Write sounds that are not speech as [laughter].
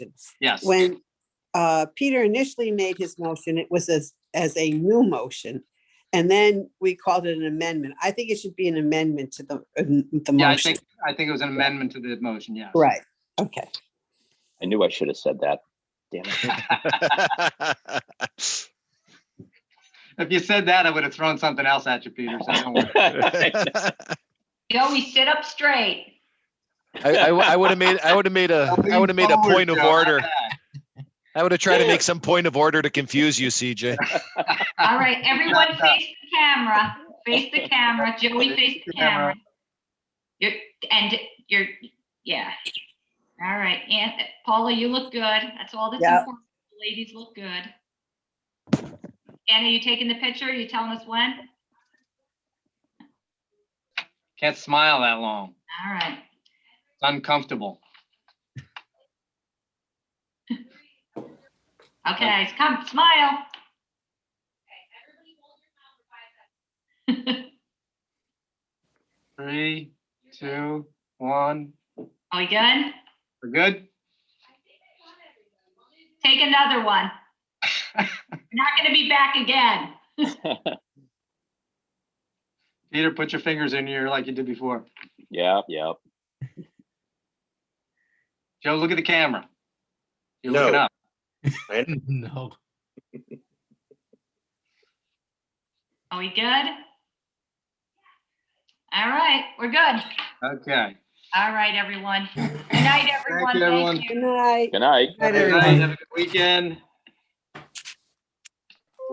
motions. Yes. When uh, Peter initially made his motion, it was as, as a new motion. And then we called it an amendment. I think it should be an amendment to the, uh, the Yeah, I motion. think, I think it was an amendment to the motion, yes. Right, okay. I knew I should have said that. Damn it. If you said that, I would have thrown something else at you, Peter, so don't worry. [laughs] Joey, sit up straight. [laughs] I, I, I would have made, I would have made a, I would have made a Forward, point of Joe, not order. back. I would have tried to make some point of order to confuse you, CJ. All right, everyone face the camera, face [laughs] the camera, Joey face the camera. You're, and you're, yeah. All right, and Paula, you look good. That's all that's Yep. important. The Ladies look good. Anna, you taking the picture? You telling us when? [laughs] Can't smile that long. All right. It's uncomfortable. Okay, come, smile. [laughs] Three, two, one. Are we good? We're good? Take another one. You're Not gonna be back again. Peter, put your fingers in your, like you did before. [laughs] Yeah, yeah. Joe, look at the camera. You're looking No. up. No. Are we good? All right, we're good. Okay. All right, everyone. Good night, everyone. everyone. you. Good night. Good night. Good night, Good everyone. night. Have a good weekend.